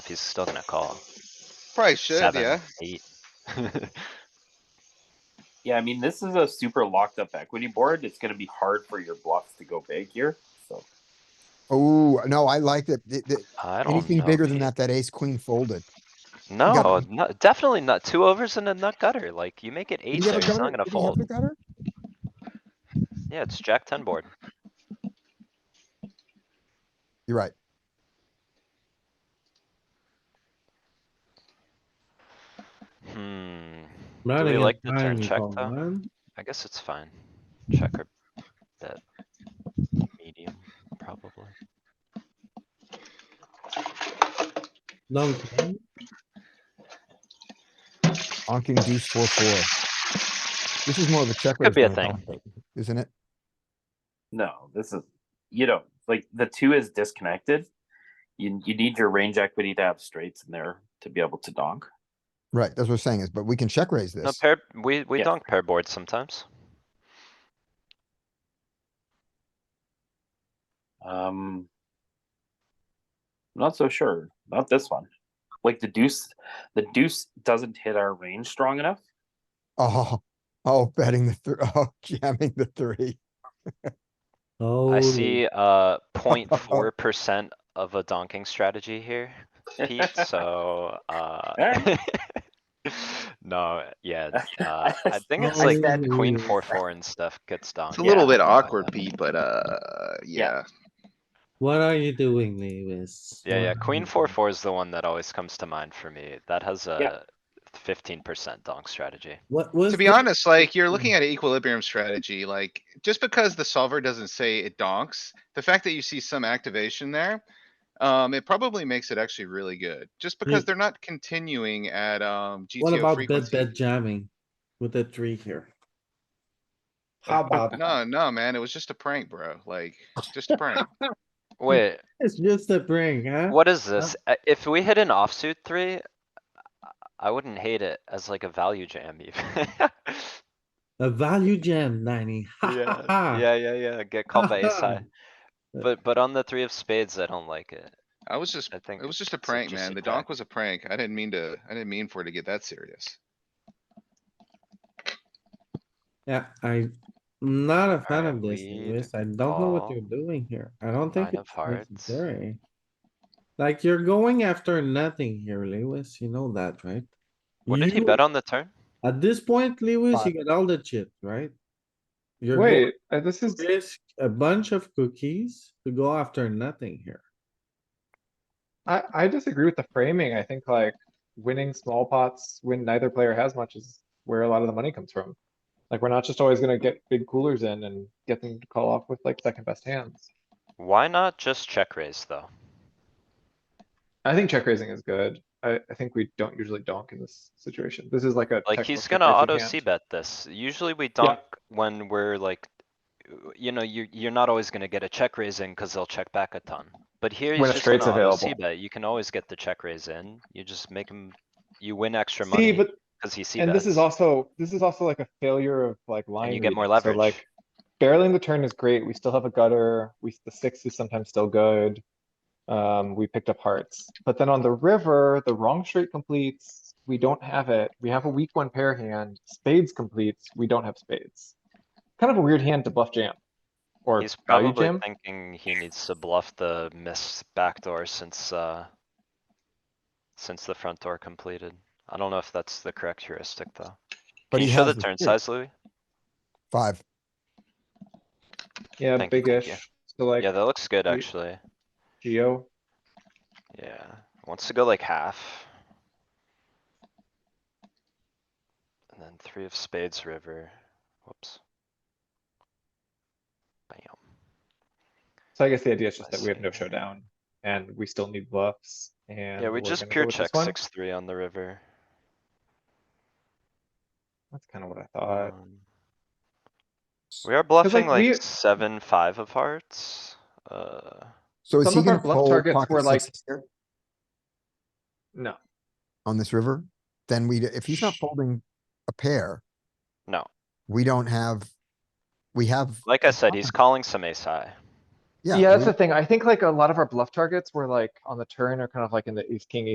he's still gonna call. Probably should, Seven, yeah. Eight. Yeah, I mean, this is a super locked up equity board. It's going to be hard for your bluffs to go big here. So, Oh, no, I liked it. The- the- I don't Anything know, bigger than man. that, that ace queen folded. No, no, definitely not. Two overs and a nut gutter. Like, you make it Did eight you have there, a it's gutter? not gonna Did you have fold. the gutter? Yeah, it's jack ten board. You're right. Hmm. Do Man we against like the man, turn you check call, though? man. I guess it's fine. Check or bet. Medium, probably. Donkey. Onking deuce four, four. This is more of a check. Could be a raise than thing. call, Isn't it? no, this is, you know, like the two is disconnected. You, you need your range equity to have straights in there to be able to donk. Right, that's what I'm saying is, but we can check raise No, this. pair, we, we Yeah. donk pair boards sometimes. Um, not so sure. Not this one. Like the deuce, the deuce doesn't hit our range strong enough. Oh, oh, betting the three, oh, jamming the three. Oh. I see, uh, point four percent of a donking strategy here, Pete, so, uh. Alright. No, yeah, uh, I think it's I like said- queen, four, four and stuff gets donked. It's a little yeah, something bit like awkward, that. Pete, but, uh, yeah. What are you doing, Lewis? Yeah, yeah, What are queen, you four, doing? four is the one that always comes to mind for me. That has a fifteen percent donk strategy. What was? To be the- honest, like, you're Mm. looking at an equilibrium strategy, like, just because the solver doesn't say it donks, the fact that you see some activation there. Um, it probably makes it actually really good, just Hmm. because Mm. they're not continuing at, um, What GTO about bed frequency. bed jamming with the three here? How about that? No, no, man, it was just a prank, bro, like, just a prank. Wait, It's just a prank, huh? what is this? Uh, If we hit an offsuit three, I wouldn't hate it as like a value jam even. A value jam, ninety. Ha, ha, ha. Yeah, yeah, yeah, yeah, get called by ace high. Uh, But, but on the three of spades, I don't like it. I was just, I think it was just a it's prank, just man. a The crack. donk was a prank. I didn't mean to, I didn't mean for it to get that serious. Yeah, I'm not a fan Alright, of this, lead, Lewis. I don't know what call, you're doing here. I don't think nine of it's hearts. necessary. Like, you're going after nothing here, Lewis. You know that, right? What did he You- bet on the turn? At this point, Lewis, you Five. got all the chip, right? You're going Wait, uh, this is, to risk a bunch of cookies to go after nothing here. I, I disagree with the framing. I think like winning small pots when neither player has much is where a lot of the money comes from. Like, we're not just always gonna get big coolers in and get them to call off with like second best hands. Why not just check raise though? I think check raising is good. I, I think we don't usually donk in this situation. This is like a. Like, technical he's check gonna raising auto hand. c bet this. Usually we donk when we're like, you know, you, you're not always gonna get a check raise in cuz they'll check back a ton. But here When he's a just straight's gonna auto c available. bet. You can always get the check raise in. You just make him, you win extra See, money but, cuz he c and this bets. is also, this is also like a failure of like line. you get more reading. So, leverage. Like barreling the turn is great. We still have a gutter. We, the six is sometimes still good. Um, we picked up hearts, but then on the river, the wrong straight completes. We don't have it. We have a weak one pair hand. Spades completes. We don't have spades. Kind of a weird hand to bluff jam. Or He's value probably jam. thinking he needs to bluff the miss backdoor since, uh, since the front door completed. I don't know if that's the correct heuristic though. But Can you he show the has the turn three. size, Louis? Five. Yeah, Thank you, thank you. big-ish. So like Yeah, that looks good we- actually. Geo. Yeah, wants to go like half. And then three of spades river, whoops. Bam, So I guess the idea is just I that we have no see. showdown and we still need bluffs and. yeah, we we're just gonna go pure with this check one. six, three on the river. That's kind of what I thought. Um, We are bluffing like, we- like seven, five of hearts, uh, So is Some he of our gonna bluff fold targets were pocket like. sixes No, on this river? Then we, if he's not folding a pair, no, we don't have, we have, like I said, he's calling some ace high. yeah. yeah, we- that's the thing. I think like a lot of our bluff targets were like on the turn or kind of like in the ace, king,